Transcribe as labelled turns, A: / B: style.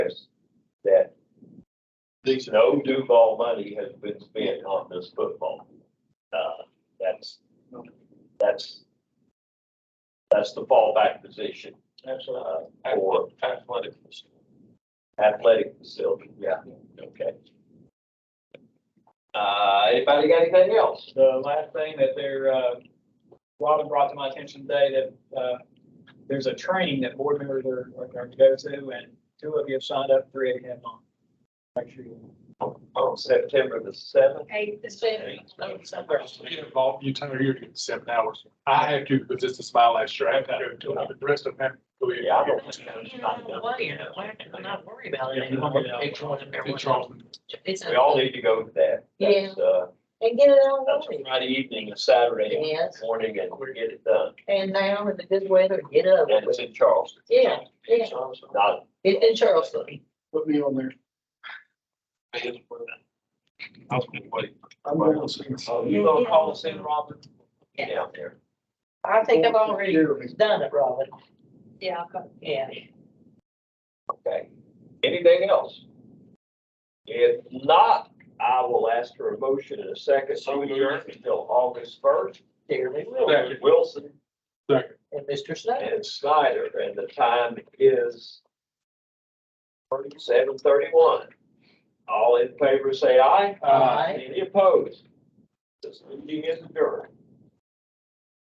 A: These are
B: No Duval money has been spent on this football. Uh, that's, that's, that's the fallback position.
C: Absolutely.
B: uh, for
C: Athletic.
B: athletic facility, yeah, okay. Uh, anybody got anything else?
C: The last thing that they're, uh, Robin brought to my attention today that, uh, there's a training that board members are, are going to go to and two of you have signed up, three of you have not. Make sure you.
B: On September the seventh,
D: Eight, the
E: Get involved, you tell her you're getting seven hours. I have to, because this is my last year. I have to go to, it. the rest of them have to go in.
B: yeah, I don't.
F: I'm not worried about
C: Yeah,
F: it
C: you don't worry about it.
E: In
F: anymore.
E: Charleston.
F: It's
B: We
F: a-
B: all need to go to that. That's, uh,
D: And get it all
B: that's
D: going.
B: Friday evening, a Saturday
F: Yes,
B: morning, and we get it done,
F: and now in the good weather, get up.
B: and it's in Charleston.
F: Yeah, yeah,
B: Not,
F: it's in Charleston.
A: Put me on there. I'm going to.
B: oh,
C: You
B: you
C: gonna call us in, Robin?
B: go down there.
F: I think I've already done it, Robin.
D: Yeah, I'll go.
F: Yeah.
B: Okay, anything else? If not, I will ask for a motion in a second, so adjourned until August first.
F: Dearly
E: Second.
B: Wilson
F: And Mr. Snyder.
B: and Snyder, and the time is seven thirty-one. All in favor, say aye.
E: Aye.
B: Uh, Any opposed? This meeting is adjourned.